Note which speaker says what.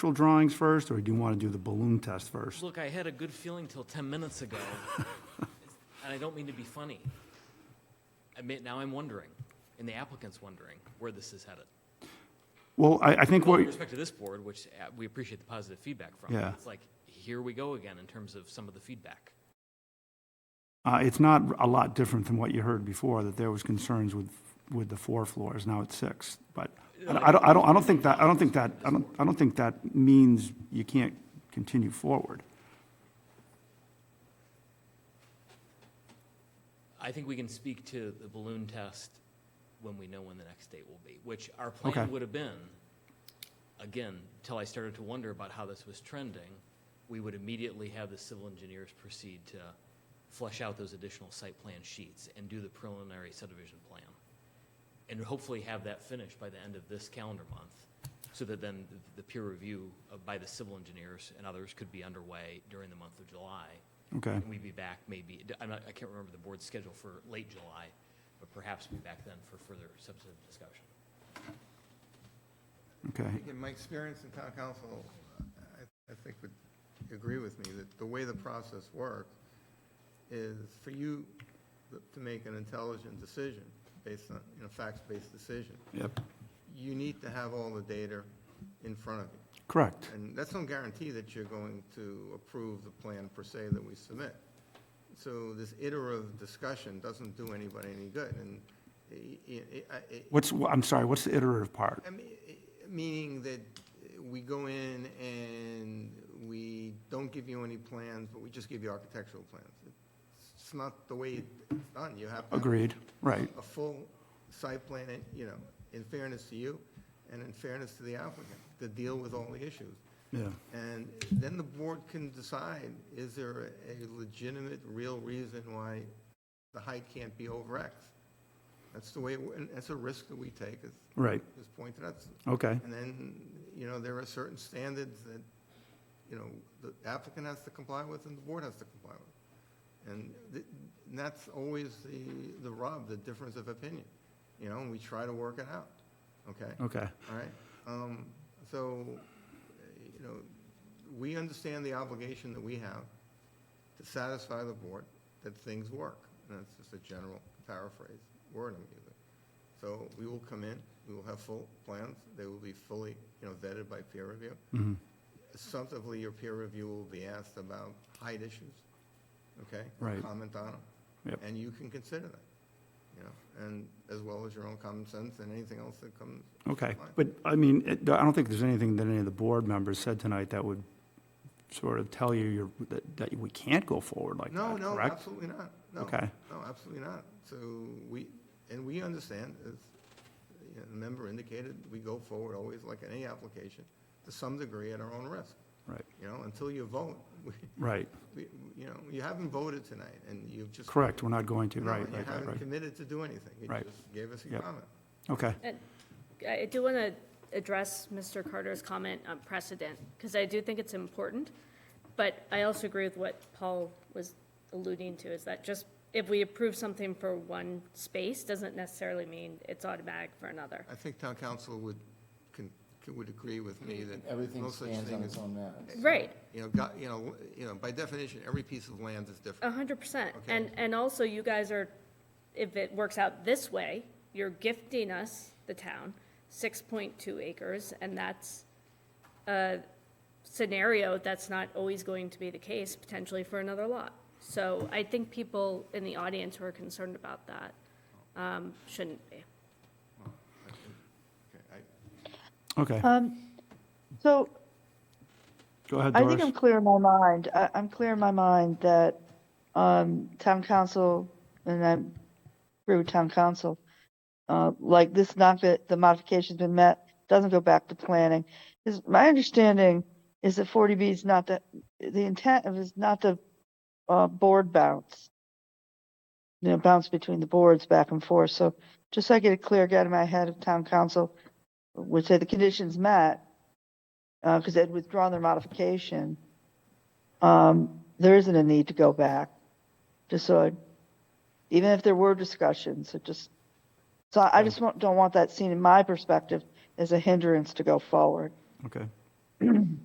Speaker 1: structural drawings first, or do you want to do the balloon test first?
Speaker 2: Look, I had a good feeling till 10 minutes ago, and I don't mean to be funny. I mean, now I'm wondering, and the applicant's wondering, where this is headed.
Speaker 1: Well, I, I think
Speaker 2: Well,
Speaker 1: what,
Speaker 2: with respect to this board, which uh, we appreciate the positive feedback from.
Speaker 1: Yeah.
Speaker 2: It's like, here we go again in terms of some of the feedback.
Speaker 1: uh, it's not a lot different than what you heard before, that there was concerns with, with the four floors, now it's six, but I I don't, I don't, I don't think that, I don't think that, I don't, I don't think that means you can't continue forward.
Speaker 2: I think we can speak to the balloon test when we know when the next date will be, which our
Speaker 1: Okay.
Speaker 2: plan would have been, again, till I started to wonder about how this was trending, we would immediately have the civil engineers proceed to flesh out those additional site plan sheets and do the preliminary subdivision plan. And hopefully have that finished by the end of this calendar month, so that then the peer review uh, by the civil engineers and others could be underway during the month of July.
Speaker 1: Okay,
Speaker 2: And we'd be back maybe, I'm not, I can't remember the board's schedule for late July, but perhaps be back then for further substantive discussion.
Speaker 1: okay.
Speaker 3: In my experience in town council, I, I think would agree with me that the way the process works is for you to make an intelligent decision based on, you know, facts-based decision,
Speaker 1: Yep.
Speaker 3: you need to have all the data in front of you.
Speaker 1: Correct.
Speaker 3: And that's no guarantee that you're going to approve the plan per se that we submit. So this iterative discussion doesn't do anybody any good, and i- i- i- I-
Speaker 1: What's, I'm sorry, what's the iterative part?
Speaker 3: I mean, eh, Meaning that we go in and we don't give you any plans, but we just give you architectural plans. It's not the way it's done. You have to have
Speaker 1: Agreed, right.
Speaker 3: a full site plan, and, you know, in fairness to you and in fairness to the applicant, to deal with all the issues.
Speaker 1: Yeah.
Speaker 3: And then the board can decide, is there a legitimate, real reason why the height can't be over X? That's the way, it wo- and that's a risk that we take, as
Speaker 1: Right,
Speaker 3: was pointed out.
Speaker 1: okay,
Speaker 3: And then, you know, there are certain standards that, you know, the applicant has to comply with and the board has to comply with. And th- and that's always the, the rub, the difference of opinion, you know, and we try to work it out, okay?
Speaker 1: okay.
Speaker 3: All right? Um, So, uh, you know, we understand the obligation that we have to satisfy the board that things work. And that's just a general paraphrase word I'm using. So we will come in, we will have full plans, they will be fully, you know, vetted by peer review.
Speaker 1: Mhm.
Speaker 3: Substantively, your peer review will be asked about height issues, okay?
Speaker 1: Right.
Speaker 3: Comment on them.
Speaker 1: Yep.
Speaker 3: And you can consider that, you know, and as well as your own common sense and anything else that comes.
Speaker 1: Okay,
Speaker 3: Fine.
Speaker 1: but, I mean, it- I don't think there's anything that any of the board members said tonight that would sort of tell you you're, that, that we can't go forward like
Speaker 3: No,
Speaker 1: that,
Speaker 3: no,
Speaker 1: correct?
Speaker 3: absolutely not. No,
Speaker 1: Okay.
Speaker 3: No, absolutely not. So we, and we understand, as you know, the member indicated, we go forward always like any application, to some degree at our own risk,
Speaker 1: Right,
Speaker 3: you know, until you vote. we-
Speaker 1: right,
Speaker 3: we- You know, you haven't voted tonight, and you've just.
Speaker 1: correct, we're not going to,
Speaker 3: No,
Speaker 1: right,
Speaker 3: and
Speaker 1: right,
Speaker 3: You
Speaker 1: right,
Speaker 3: haven't
Speaker 1: right.
Speaker 3: committed to do anything. You
Speaker 1: Right.
Speaker 3: just gave us a
Speaker 1: Yep.
Speaker 3: comment.
Speaker 1: Okay,
Speaker 4: And I do want to address Mr. Carter's comment on precedent, because I do think it's important, but I also agree with what Paul was alluding to, is that just if we approve something for one space, doesn't necessarily mean it's automatic for another.
Speaker 3: I think town council would, can, would agree with me that.
Speaker 5: Everything
Speaker 3: no such
Speaker 5: stands
Speaker 3: thing
Speaker 5: on
Speaker 3: as-
Speaker 5: its own merits.
Speaker 4: Right,
Speaker 3: You know, got, you know, you know, by definition, every piece of land is different.
Speaker 4: a hundred percent.
Speaker 3: Okay.
Speaker 4: And, and also you guys are, if it works out this way, you're gifting us, the town, six point two acres, and that's a scenario that's not always going to be the case, potentially for another lot. So I think people in the audience who are concerned about that, um, shouldn't be.
Speaker 3: Okay, I-
Speaker 1: okay,
Speaker 6: Uh, So
Speaker 1: go ahead,
Speaker 6: I think I'm
Speaker 1: Doris.
Speaker 6: clear in my mind. I, I'm clear in my mind that um, town council, and I'm through town council, uh, like this not fit, the modification's been met, doesn't go back to planning. Is my understanding is that 40B is not the the intent of is not the uh, board bounce. You know, bounce between the boards back and forth. So just so I get a clear get in my head of town council would say the conditions met, because they'd withdrawn their modification, um, there isn't a need to go back. Just so, I- even if there were discussions, it just, so I I just want- don't want that seen in my perspective as a hindrance to go forward.
Speaker 1: Okay,